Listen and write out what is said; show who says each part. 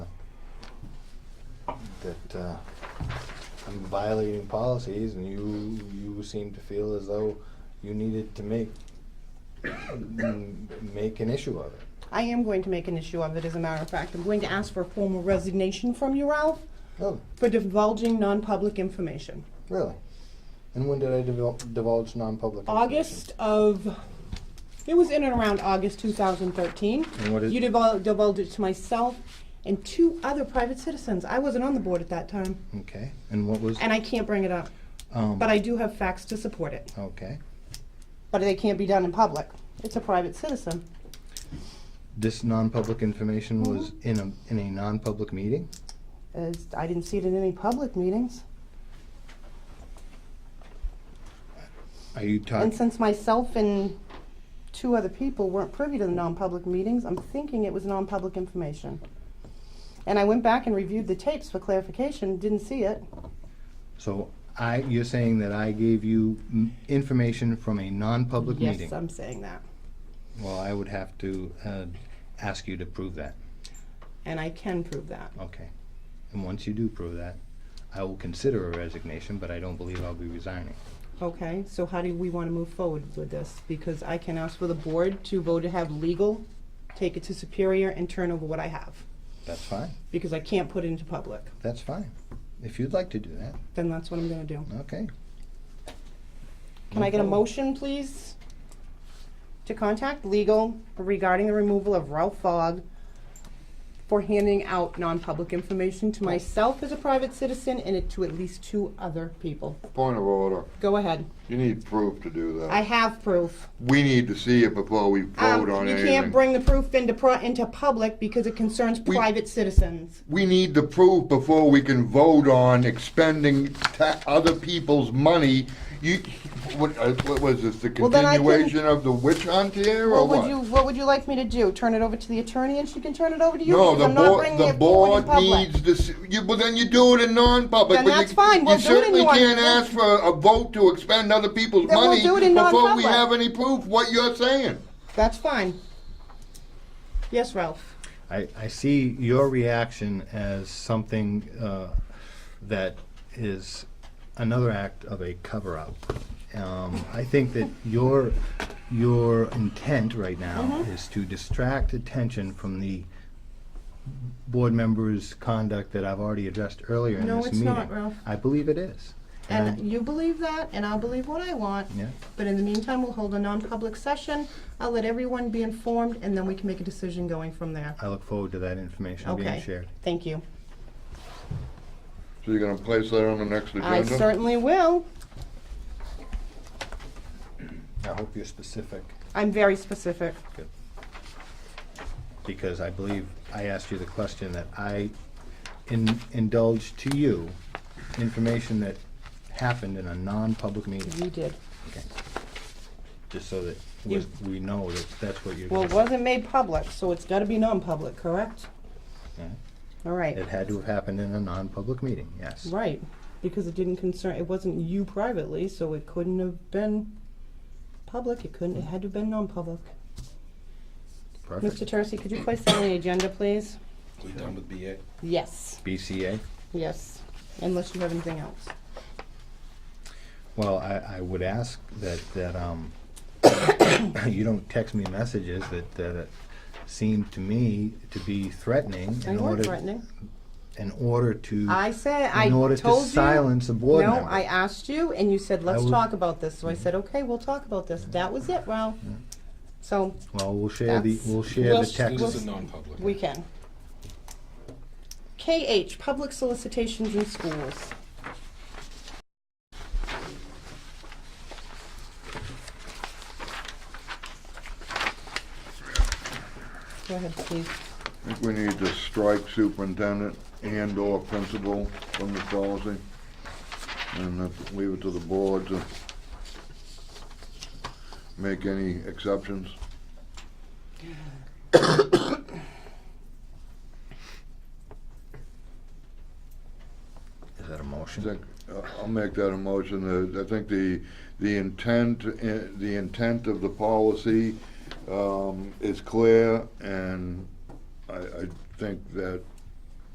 Speaker 1: that uh, I'm violating policies and you, you seem to feel as though you needed to make, m- make an issue of it.
Speaker 2: I am going to make an issue of it, as a matter of fact. I'm going to ask for a formal resignation from you, Ralph,
Speaker 1: Really,
Speaker 2: for divulging non-public information.
Speaker 1: Oh, really. And when did I divul- divulge non-public information?
Speaker 2: August of, it was in and around August 2013.
Speaker 1: And what is-
Speaker 2: You divul- divulged it to myself and two other private citizens. I wasn't on the board at that time,
Speaker 1: Okay, and what was,
Speaker 2: and I can't bring it up.
Speaker 1: um,
Speaker 2: But I do have facts to support it.
Speaker 1: okay.
Speaker 2: But they can't be done in public. It's a private citizen.
Speaker 1: This non-public information was
Speaker 2: Mm-hmm.
Speaker 1: in a, in a non-public meeting?
Speaker 2: As I didn't see it in any public meetings.
Speaker 1: Are you
Speaker 2: And
Speaker 1: talking,
Speaker 2: since myself and two other people weren't privy to the non-public meetings, I'm thinking it was non-public information. And I went back and reviewed the tapes for clarification, didn't see it.
Speaker 1: so I, you're saying that I gave you m- information from a non-public meeting?
Speaker 2: Yes, I'm saying that.
Speaker 1: Well, I would have to uh, ask you to prove that.
Speaker 2: And I can prove that.
Speaker 1: Okay. And once you do prove that, I will consider a resignation, but I don't believe I'll be resigning.
Speaker 2: Okay, so how do we want to move forward with this? Because I can ask for the board to vote to have legal take it to Superior and turn over what I have,
Speaker 1: That's fine.
Speaker 2: because I can't put it into public.
Speaker 1: That's fine. If you'd like to do that,
Speaker 2: Then that's what I'm going to do.
Speaker 1: okay.
Speaker 2: Can I get a motion, please, to contact legal regarding the removal of Ralph Fogg for handing out non-public information to myself as a private citizen and to at least two other people?
Speaker 3: Point of order.
Speaker 2: Go ahead.
Speaker 3: You need proof to do that.
Speaker 2: I have proof.
Speaker 3: We need to see it before we
Speaker 2: Um,
Speaker 3: vote on
Speaker 2: You
Speaker 3: anything.
Speaker 2: can't bring the proof into, pro- into public because it concerns
Speaker 3: We-
Speaker 2: private citizens.
Speaker 3: We need the proof before we can vote on expending ta- other people's money. You, what, uh, what was this, the
Speaker 2: Well, then I can-
Speaker 3: continuation of the witch hunt here, or
Speaker 2: What
Speaker 3: what?
Speaker 2: would you, what would you like me to do? Turn it over to the attorney and she can turn it over to you?
Speaker 3: No,
Speaker 2: because
Speaker 3: the
Speaker 2: I'm not
Speaker 3: board,
Speaker 2: bringing
Speaker 3: the
Speaker 2: it forward in
Speaker 3: board
Speaker 2: public.
Speaker 3: needs to, s- you, well, then you do it in non-public.
Speaker 2: Then
Speaker 3: but you-
Speaker 2: that's fine. We'll do it in
Speaker 3: You
Speaker 2: non-
Speaker 3: certainly can't ask for a vote to expend other people's
Speaker 2: Then we'll
Speaker 3: money
Speaker 2: do it in
Speaker 3: before we
Speaker 2: non-public.
Speaker 3: have any proof what you're saying.
Speaker 2: That's fine. Yes, Ralph?
Speaker 1: I, I see your reaction as something uh, that is another act of a cover-up. Um, I think that your, your intent right now
Speaker 2: Mm-hmm.
Speaker 1: is to distract attention from the board members' conduct that I've already addressed earlier in this
Speaker 2: No,
Speaker 1: meeting.
Speaker 2: it's not, Ralph.
Speaker 1: I believe it is. I-
Speaker 2: And you believe that, and I'll believe what I want.
Speaker 1: Yeah.
Speaker 2: But in the meantime, we'll hold a non-public session. I'll let everyone be informed, and then we can make a decision going from there.
Speaker 1: I look forward to that information being
Speaker 2: Okay,
Speaker 1: shared.
Speaker 2: thank you.
Speaker 3: So you're gonna place that on the next agenda?
Speaker 2: I certainly will.
Speaker 1: I hope you're specific,
Speaker 2: I'm very specific.
Speaker 1: because I believe I asked you the question that I in- indulged to you information that happened in a non-public meeting,
Speaker 2: You did.
Speaker 1: just so that we- we know that that's what you're
Speaker 2: Well,
Speaker 1: gonna
Speaker 2: it wasn't made public, so it's gotta be non-public, correct?
Speaker 1: Yeah.
Speaker 2: All right,
Speaker 1: It had to have happened in a non-public meeting, yes.
Speaker 2: right, because it didn't concern, it wasn't you privately, so it couldn't have been public, it couldn't, it had to have been non-public. Mr.
Speaker 1: Perfect.
Speaker 2: Tercey, could you place that on the agenda, please?
Speaker 4: We done with BA?
Speaker 2: Yes.
Speaker 1: BCA?
Speaker 2: Yes, unless you have anything else.
Speaker 1: Well, I, I would ask that, that, um, you don't text me messages that, that uh, seem to me to be threatening
Speaker 2: I
Speaker 1: in order.
Speaker 2: weren't threatening.
Speaker 1: in order to
Speaker 2: I said, I
Speaker 1: in order
Speaker 2: told
Speaker 1: to
Speaker 2: you-
Speaker 1: silence a board
Speaker 2: No,
Speaker 1: member.
Speaker 2: I asked you and you said, let's
Speaker 1: would-
Speaker 2: talk about this. So I said, okay, we'll talk about this. That was it, Ralph. So
Speaker 1: well, we'll share the
Speaker 2: That's-
Speaker 1: we'll share
Speaker 2: we'll
Speaker 1: the
Speaker 2: sh-
Speaker 1: text.
Speaker 4: This is a non-public.
Speaker 2: we can. KH, public solicitations in schools. Go ahead, please.
Speaker 3: I think we need to strike superintendent and/or principal from the policy. And that's- leave it to the board to make any exceptions.
Speaker 1: Is that a
Speaker 3: I
Speaker 1: motion?
Speaker 3: think, uh, I'll make that a motion. Uh, I think the, the intent, uh, the intent of the policy um, is clear, and I, I think that